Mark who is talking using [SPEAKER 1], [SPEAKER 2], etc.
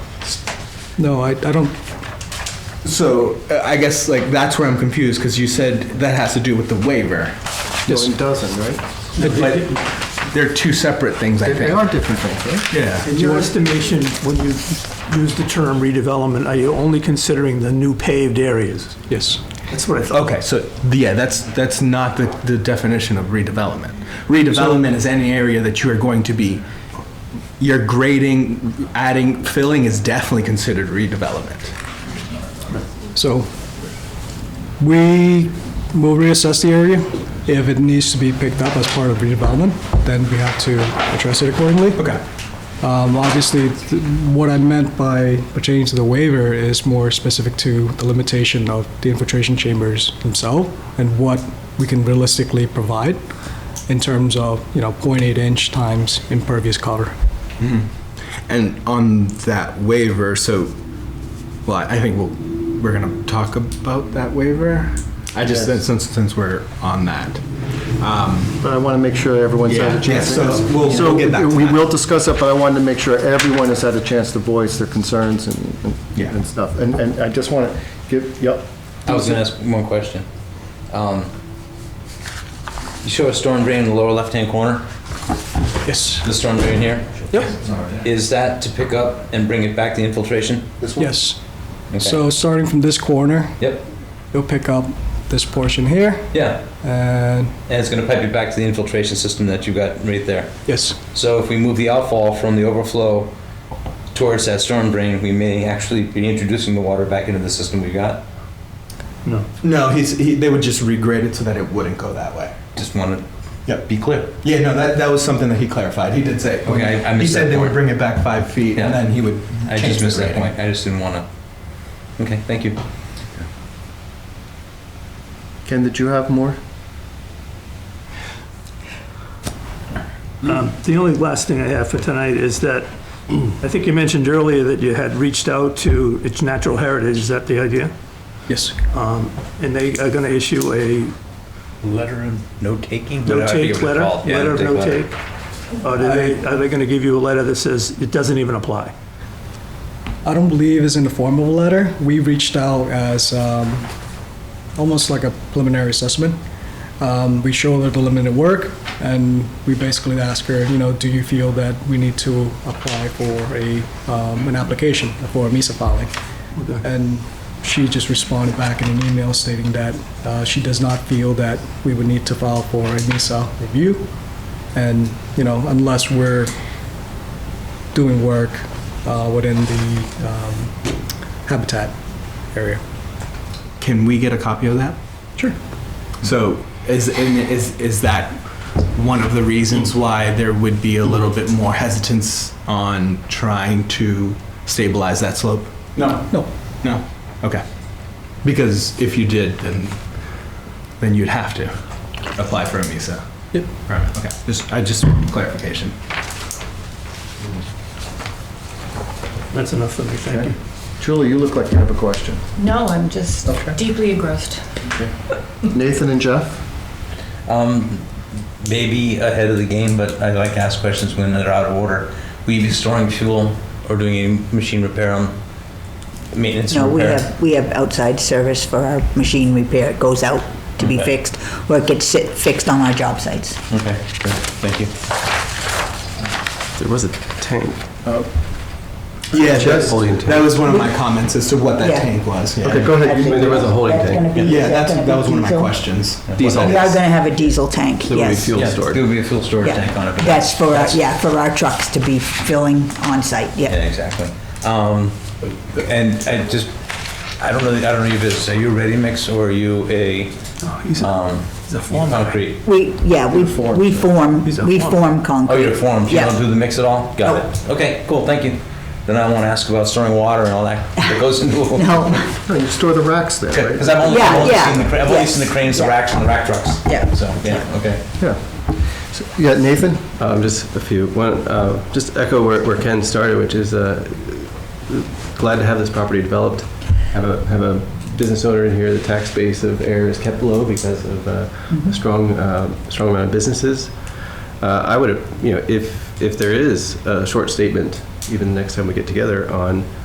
[SPEAKER 1] No, I, I don't,
[SPEAKER 2] So uh, I guess like that's where I'm confused because you said that has to do with the waiver.
[SPEAKER 3] No, it doesn't, right?
[SPEAKER 2] But they're two separate things, I
[SPEAKER 3] They- They
[SPEAKER 2] think.
[SPEAKER 3] are different things, right?
[SPEAKER 2] Yeah.
[SPEAKER 4] In your estimation, when you use the term redevelopment, are you only considering the new paved areas?
[SPEAKER 1] yes.
[SPEAKER 4] That's what I thought.
[SPEAKER 2] Okay, so yeah, that's that's not the, the definition of redevelopment. Redevelopment is any area that you are going to be you're grading, adding, filling is definitely considered redevelopment.
[SPEAKER 1] So we will reassess the area. If it needs to be picked up as part of redevelopment, then we have to address it accordingly.
[SPEAKER 2] Okay.
[SPEAKER 1] Um, Obviously, th- what I meant by a change to the waiver is more specific to the limitation of the infiltration chambers themselves and what we can realistically provide in terms of, you know, 0.8 inch times impervious cover.
[SPEAKER 2] And on that waiver, so, well, I think we'll, we're gonna talk about that waiver. I just,
[SPEAKER 3] Yes.
[SPEAKER 2] since, since we're on that.
[SPEAKER 3] But I want to make sure everyone's
[SPEAKER 2] Yeah,
[SPEAKER 3] had a chance.
[SPEAKER 2] yeah,
[SPEAKER 3] to-
[SPEAKER 2] so we'll-
[SPEAKER 3] So
[SPEAKER 2] we'll get back to
[SPEAKER 3] We
[SPEAKER 2] that.
[SPEAKER 3] will discuss it, but I wanted to make sure everyone has had a chance to voice their concerns and- and,
[SPEAKER 2] Yeah.
[SPEAKER 3] and stuff. And, and I just want to give, yep,
[SPEAKER 5] I was gonna ask one question. Um, You show a storm drain in the lower left-hand corner,
[SPEAKER 1] Yes.
[SPEAKER 5] the storm drain here?
[SPEAKER 1] Yep.
[SPEAKER 5] Is that to pick up and bring it back to infiltration?
[SPEAKER 1] Yes.
[SPEAKER 5] Okay.
[SPEAKER 1] So starting from this corner,
[SPEAKER 5] Yep,
[SPEAKER 1] you'll pick up this portion here
[SPEAKER 5] yeah,
[SPEAKER 1] and,
[SPEAKER 5] and it's gonna pipe it back to the infiltration system that you got right there.
[SPEAKER 1] yes,
[SPEAKER 5] So if we move the outfall from the overflow towards that storm drain, we may actually be introducing the water back into the system we got.
[SPEAKER 2] No, he's, he, they would just regrade it so that it wouldn't go that way.
[SPEAKER 5] Just wanna
[SPEAKER 2] Yep.
[SPEAKER 5] be clear.
[SPEAKER 2] Yeah, no, that, that was something that he clarified. He did say.
[SPEAKER 5] Okay, I- I missed
[SPEAKER 2] He
[SPEAKER 5] that
[SPEAKER 2] said they would
[SPEAKER 5] point.
[SPEAKER 2] bring it back five feet and
[SPEAKER 5] Yeah.
[SPEAKER 2] then he would.
[SPEAKER 5] I
[SPEAKER 2] change
[SPEAKER 5] just
[SPEAKER 2] the
[SPEAKER 5] missed that
[SPEAKER 2] grading.
[SPEAKER 5] point, I just didn't wanna. Okay, thank you.
[SPEAKER 3] Ken, did you have more?
[SPEAKER 4] Um, The only last thing I have for tonight is that, I think you mentioned earlier that you had reached out to its natural heritage, is that the idea?
[SPEAKER 1] yes.
[SPEAKER 4] And they are going to issue a
[SPEAKER 6] Letter and no taking?
[SPEAKER 4] no-take letter?
[SPEAKER 5] Yeah,
[SPEAKER 4] Letter of
[SPEAKER 5] no-take letter.
[SPEAKER 4] no-take? Or do they, are they going to give you a letter that says it doesn't even apply?
[SPEAKER 1] I don't believe is in the form of a letter. We reached out as um, almost like a preliminary assessment. Um, we showed her the limited work, and we basically asked her, you know, do you feel that we need to apply for a um, an application for a MISA filing? And she just responded back in an email stating that uh, she does not feel that we would need to file for a MISA review, and you know, unless we're doing work uh, within the um, habitat area.
[SPEAKER 2] Can we get a copy of that?
[SPEAKER 1] Sure.
[SPEAKER 2] So is, and is, is that one of the reasons why there would be a little bit more hesitance on trying to stabilize that slope? No.
[SPEAKER 1] No.
[SPEAKER 2] No? Okay. Because if you did, then, then you'd have to apply for a MISA.
[SPEAKER 1] Yep.
[SPEAKER 2] Right, okay. Just, I just clarification.
[SPEAKER 4] That's enough for me, thank you.
[SPEAKER 3] Julie, you look like you have a question.
[SPEAKER 7] No, I'm just
[SPEAKER 3] Okay.
[SPEAKER 7] deeply engrossed.
[SPEAKER 3] Nathan and Jeff?
[SPEAKER 5] Um, maybe ahead of the game, but I like to ask questions when they're out of order. Will you be storing fuel or doing any machine repair on maintenance
[SPEAKER 8] No,
[SPEAKER 5] and
[SPEAKER 8] we
[SPEAKER 5] repair?
[SPEAKER 8] have, we have outside service for our machine repair. It goes out to be
[SPEAKER 5] Okay.
[SPEAKER 8] fixed, or it gets sit- fixed on our job sites.
[SPEAKER 5] Okay, great. Thank you.
[SPEAKER 9] There was a tank.
[SPEAKER 2] Yeah, that's-
[SPEAKER 9] Holding tank.
[SPEAKER 2] that was one of my comments as to what that
[SPEAKER 8] Yeah.
[SPEAKER 2] tank was. yeah.
[SPEAKER 3] Okay, go ahead.
[SPEAKER 9] There was a holding
[SPEAKER 8] That's
[SPEAKER 9] tank.
[SPEAKER 8] gonna be-
[SPEAKER 2] Yeah,
[SPEAKER 8] is
[SPEAKER 2] that's,
[SPEAKER 8] gonna
[SPEAKER 2] that
[SPEAKER 8] be
[SPEAKER 2] was one of my
[SPEAKER 8] diesel?
[SPEAKER 2] questions.
[SPEAKER 9] Diesel.
[SPEAKER 8] We are gonna have a diesel tank,
[SPEAKER 9] There would be
[SPEAKER 8] yes.
[SPEAKER 9] fuel
[SPEAKER 5] Yeah,
[SPEAKER 9] stored.
[SPEAKER 5] There will be a fuel storage
[SPEAKER 8] Yeah.
[SPEAKER 5] tank on it. but
[SPEAKER 8] That's for, our- yeah, for our trucks to be filling on site,
[SPEAKER 5] Yeah,
[SPEAKER 8] yeah.
[SPEAKER 5] exactly. Um, and I just, I don't know, I don't know your business. Are you a ready mix or are you a, um, concrete?
[SPEAKER 8] We, yeah, we,
[SPEAKER 3] form.
[SPEAKER 8] we form,
[SPEAKER 4] He's a
[SPEAKER 8] we
[SPEAKER 4] form.
[SPEAKER 8] form concrete.
[SPEAKER 5] Oh, you're formed, you
[SPEAKER 8] Yeah.
[SPEAKER 5] don't do the mix at all? Got it. Okay, cool, thank you. Then I won't ask about storing water and all that that goes into a
[SPEAKER 8] No,
[SPEAKER 3] No, Oh, You store the racks there, right?
[SPEAKER 5] Because I've only,
[SPEAKER 8] Yeah,
[SPEAKER 5] I've only
[SPEAKER 8] yeah,
[SPEAKER 5] seen the, cra- I've only
[SPEAKER 8] yes,
[SPEAKER 5] seen the cranes, the
[SPEAKER 8] yeah.
[SPEAKER 5] racks, and the rack trucks.
[SPEAKER 8] Yeah.
[SPEAKER 5] So, yeah, okay.
[SPEAKER 3] Yeah. So, Yeah, Nathan?
[SPEAKER 9] Um, just a few. One, uh, just echo where, where Ken started, which is uh, glad to have this property developed. Have a have a business owner in here. The tax base of air is kept low because of uh, a strong uh, strong amount of businesses. Uh, I would, you know, if if there is a short statement, even the next time we get together on